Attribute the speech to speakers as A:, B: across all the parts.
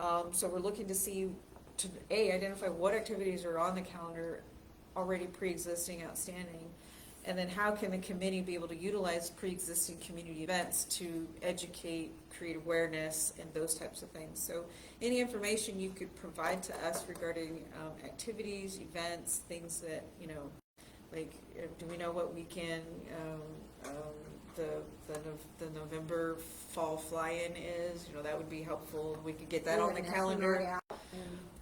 A: Um, so we're looking to see, to, A, identify what activities are on the calendar already pre-existing, outstanding, and then how can the committee be able to utilize pre-existing community events to educate, create awareness, and those types of things? So any information you could provide to us regarding, um, activities, events, things that, you know, like, uh, do we know what weekend, um, um, the, the, Nov- the November fall fly-in is? You know, that would be helpful, we could get that on the calendar.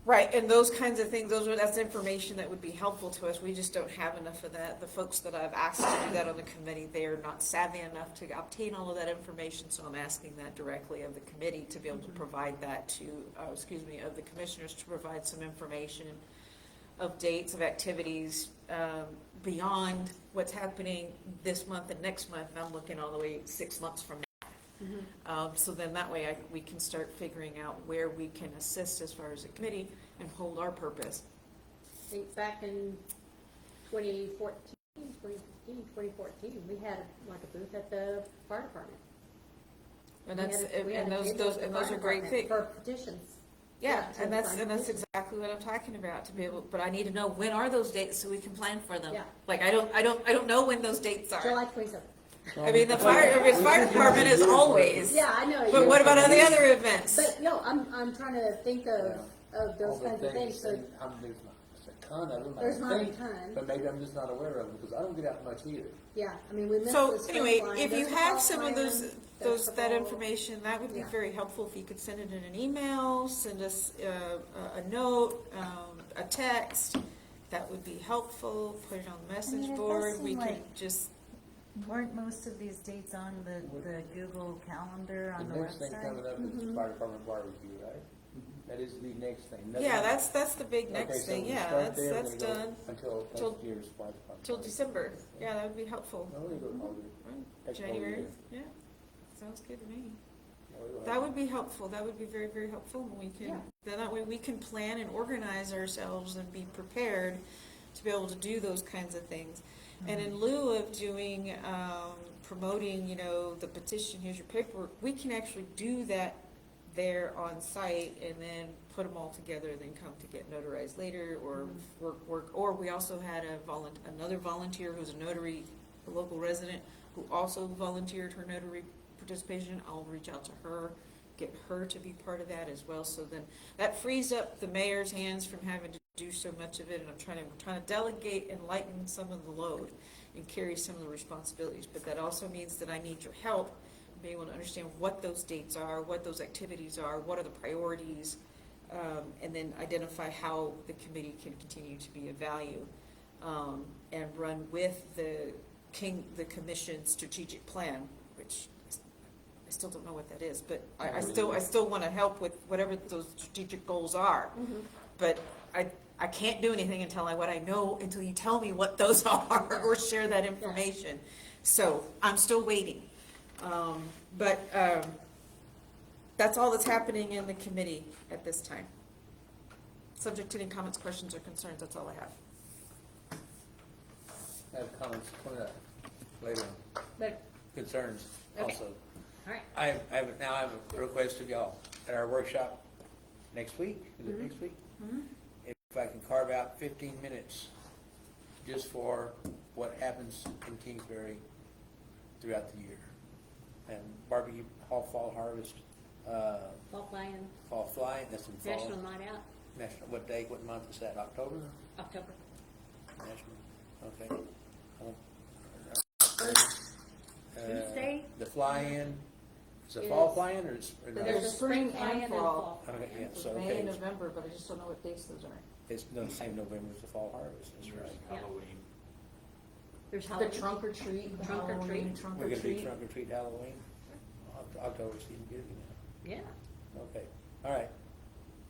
A: Right, and those kinds of things, those are, that's information that would be helpful to us, we just don't have enough of that. The folks that I've asked to do that on the committee, they are not savvy enough to obtain all of that information, so I'm asking that directly of the committee to be able to provide that to, uh, excuse me, of the commissioners to provide some information of dates, of activities, um, beyond what's happening this month and next month, and I'm looking all the way six months from now. Um, so then that way I, we can start figuring out where we can assist as far as a committee and hold our purpose.
B: I think back in 2014, 2015, 2014, we had like a booth at the fire department.
A: And
B: We
A: that's,
B: had a- we had
A: and
B: a
A: those,
B: booth
A: those,
B: at the
A: and those
B: fire
A: are great things.
B: department For petitions.
A: Yeah,
B: to the
A: and that's,
B: fire
A: and that's
B: department.
A: exactly what I'm talking about, to be able, but I need to know when are those dates so we can plan for them.
B: Yeah.
A: Like, I don't, I don't, I don't know when those dates are.
B: July 27th.
A: I mean, the fire, I mean, the fire department is always.
B: Yeah, I know.
A: But
B: you-
A: what about all the other events?
B: But no, I'm, I'm trying to think of,
C: Yeah.
B: of
C: All
B: those
C: the
B: kinds of things, so,
C: and I'm, there's not, there's a ton of them. I
B: There's not a
C: think,
B: ton.
C: But maybe I'm just not aware of them, because I don't get out much either.
B: yeah, I mean, we missed
A: So
B: the spring
A: anyway,
B: line,
A: if you
B: there's the
A: have
B: fall
A: some of those,
B: plan, there's
A: those,
B: the
A: that
B: fall-
A: information, that would be
B: Yeah.
A: very helpful if you could send it in an email, send us uh, a, a note, um, a text. That would be helpful, put it on the
D: it
A: message
D: does
A: board,
D: seem
A: we can
D: like-
A: just,
D: Weren't most of these dates on the, the Google Calendar on the
C: The next thing coming
D: website? Mm-hmm.
C: up is
A: Mm-hmm.
C: the fire department barbecue, right? That is the next thing. Nothing-
A: yeah, that's, that's the big
C: Okay,
A: next
C: so
A: thing,
C: we
A: yeah,
C: start
A: that's,
C: there,
A: that's
C: we go
A: done,
C: Until
A: Till-
C: next year's fire department.
A: till
C: barbecue.
A: December, Mm-hmm. yeah, that would be helpful.
C: No, we go probably,
A: Right,
C: That's probably
A: January,
C: good.
A: yeah, sounds good to me.
C: no, we go
A: That
C: have-
A: would be helpful, that would be very, very helpful, and we can,
B: Yeah.
A: then that way we can plan and organize ourselves and be prepared to be able to do those kinds of things. And in lieu of doing, um, promoting, you know, the petition, here's your paperwork, we can actually do that there on site and then put them all together, and then come to get notarized later, or work, work, or we also had a volun, another volunteer who's a notary, a local resident, who also volunteered her notary participation, I'll reach out to her, get her to be part of that as well, so then, that frees up the mayor's hands from having to do so much of it, and I'm trying to, we're trying to delegate and lighten some of the load and carry some of the responsibilities, but that also means that I need your help, in being able to understand what those dates are, what those activities are, what are the priorities, um, and then identify how the committee can continue to be of value, um, and run with the king, the commission's strategic plan, which I still don't know what that is, but I, I still, I still wanna help with whatever those strategic goals are.
B: Mm-hmm.
A: But I, I can't do anything until I, what I know, until you tell me what those are, or share that information. So, I'm still waiting. Um, but, um, that's all that's happening in the committee at this time. Subject to any comments, questions, or concerns, that's all I have.
C: I Have comments coming up later on,
B: But,
C: concerns
B: Okay.
C: also.
B: all right,
C: I have, I have, now I have a request of y'all at our workshop next week, is
B: Mm-hmm.
C: it next week? If I can carve out fifteen minutes just for what happens in Kingsbury throughout the year. And barbecue, hall, fall harvest, uh,
B: fall plan,
C: fall fly, that's in fall.
B: national night out,
C: National, what day, what month is that, October?
B: October.
C: National, okay. Uh,
B: Tuesday?
C: The fly-in, is it fall
B: Is-
C: fly-in or is? or no?
B: There's a spring
A: Spring and
B: plan and a
A: fall.
B: fall.
C: Okay, yeah, so,
A: May
C: okay,
A: and November, but I just don't know what dates those are.
C: it's no, the same November as the fall harvest, that's right.
E: Halloween.
B: There's Halloween.
A: The trunk or treat, the
B: Trunk or
A: Halloween
B: treat.
A: trunk
C: We're
A: or
C: gonna do
A: treat.
C: trunk or treat Halloween, Oct- October's even good, you
B: Yeah,
C: know, okay, all right.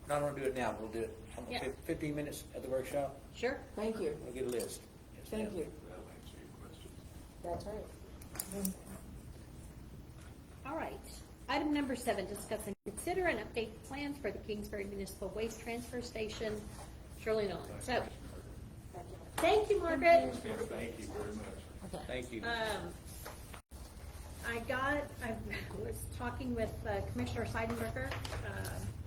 C: Not gonna do it now, we'll do it, I don't know,
B: Yeah.
C: fif- fifteen minutes at the workshop,
B: sure.
A: Thank you,
C: we'll get a list. Yes,
A: thank
C: ma'am.
A: you.
E: That'll answer your question.
A: That's right.
B: All right. Item number seven, discuss and consider and update plans for the Kingsbury Municipal Waste Transfer Station, Shirley Nolan. So, thank you, Margaret.
E: Yeah, thank you very much.
C: Thank you.
B: Um, I got, I was talking with uh, Commissioner Seidenberger, um,